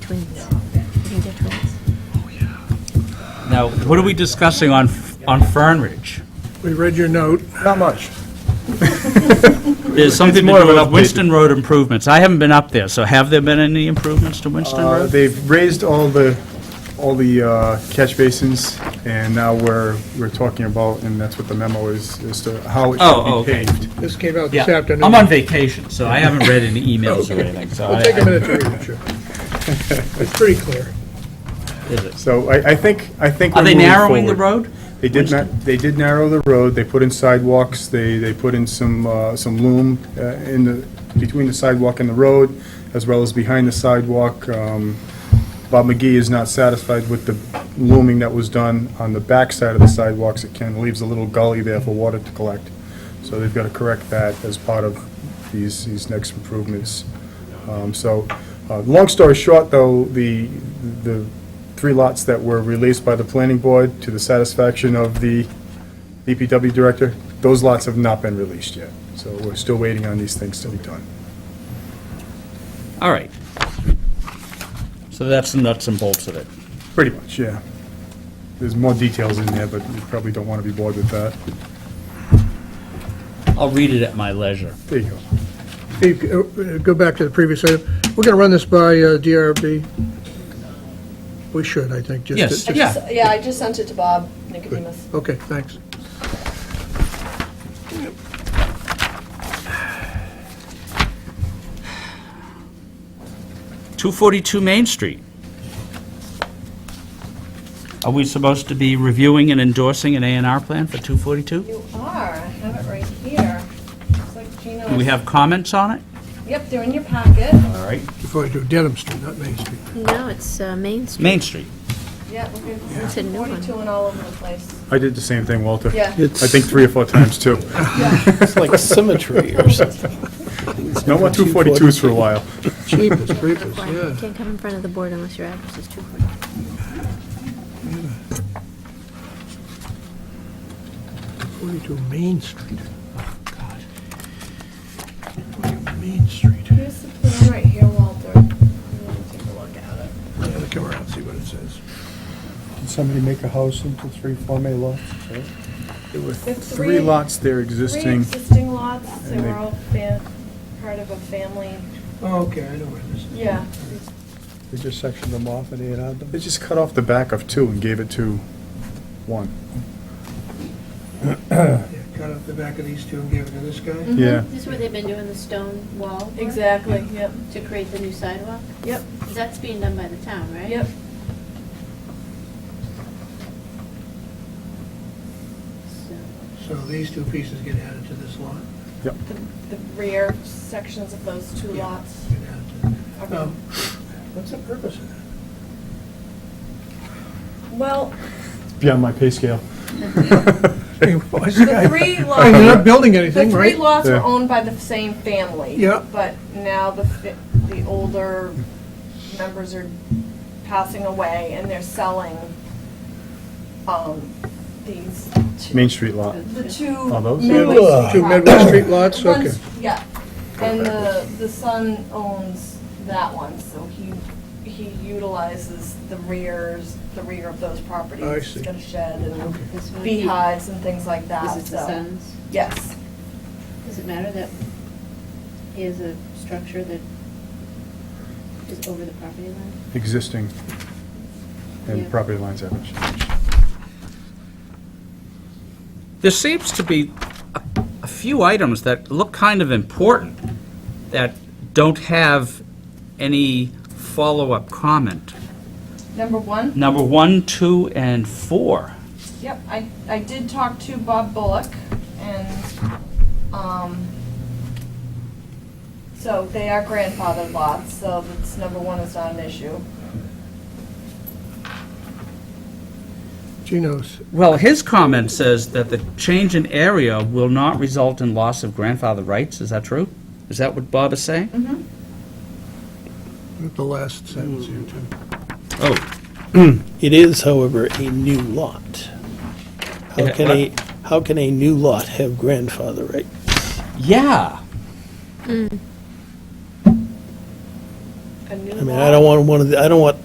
twins. I think they're twins. Now, what are we discussing on, on Fern Ridge? We read your note. Not much. There's something to more of do an with update. Winston Road improvements. I haven't been up there, so have there been any improvements to Winston Uh, Road? They've raised all the, all the uh, catch basins, and now we're, we're talking about, and that's what the memo is, is to how it Oh, should be okay. paved. This came out Yeah, this afternoon. I'm on vacation, so I haven't read any emails or anything, so I... We'll take a minute to read it, sure. It's pretty clear. Is it- So I, I think, I think Are we're they moving narrowing the forward. road? They did not, they did narrow the road, they put in sidewalks, they, they put in some, uh, some loom uh, in the, between the sidewalk and the road, as well as behind the sidewalk. Um, Bob McGee is not satisfied with the looming that was done on the backside of the sidewalks. It kind of leaves a little gully there for water to collect. So they've got to correct that as part of these, these next improvements. Um, So, uh, long story short, though, the, the three lots that were released by the planning board to the satisfaction of the DPW director, those lots have not been released yet. So we're still waiting on these things to be done. All right. So that's the nuts and bolts of it. Pretty much, yeah. There's more details in there, but you probably don't want to be bored with that. I'll read it at my leisure. There you go. Steve, uh, uh, go back to the previous item. We're going to run this by uh, DRB. We should, I think, just. Yes, just- I yeah. just- Yeah, I just sent it to Bob Nicodemus. Okay, thanks. Two forty-two Main Street. Are we supposed to be reviewing and endorsing an A and R plan for two forty-two? You are, I have it right here. It's like Gino. Do we have comments on it? Yep, they're in your packet. All right. Before you do Dedham Street, not Main Street. No, it's uh, Main Street. Main Street. Yeah, we're good. It's a new one. 42 and all over the place. I did the same thing, Walter. Yeah. I think three or four times, too. It's like symmetry or something. No more 242s for a while. Cheapest, cheapest, You yeah. can't come in front of the board unless your address is too close. Forty-two Main Street. Forty-two Main Street. Yeah, Here's the plan right here, Walter. I'm gonna Take a look at it. let me Come around, and see what it says. Did somebody make a house into three Form A lots? There were There's three three- lots there Three existing. existing lots, they And they- were all fa- part of a family, Oh, okay, I know where this is. yeah. We just sectioned them off and A&R'd them. They just cut off the back of two and gave it to one. Yeah, Cut up the back of these two and give it to this Mm-hmm. guy. Yeah. This is where they've been doing the stone wall work Exactly, yep, to create the new sidewalk? yep, That's being done by the town, right? yep. So, So these two pieces get added to this lot. The the rear sections of those two Yeah. lots Get added to are Um, What's the purpose of that? Well, Beyond my pay scale. the three lots. They're not building The anything, three right? lots were Yeah. owned by the same family. Yeah. But now the, fi- the older members are passing away and they're selling, um, these, two- Main Street lot. the Are two those- Midwest. Two Midwest Street lots, One's- okay. Yeah, and the, the son owns that one, so he, he utilizes the rears, the rear of those properties. I He's see. got a shed and This one, here, beehives and things like that, this so. is the sun's. Yes. Does it matter that he has a structure that is over the property line? Existing Yeah. and property lines haven't changed. There seems to be a- a few items that look kind of important that don't have any follow-up comment. Number one? Number one, two, and four. Yep, I, I did talk to Bob Bullock, and, um, so they are grandfathered lots, so that's, number one is not an issue. Geno's. Well, his comment says that the change in area will not result in loss of grandfather rights. Is that true? Is that what Bob is saying? The last sentence here, too. Oh, It is, however, a new lot. How Yeah, can what? a, how can a new lot have grandfather right? yeah. And new I mean, I don't want one of the, I don't want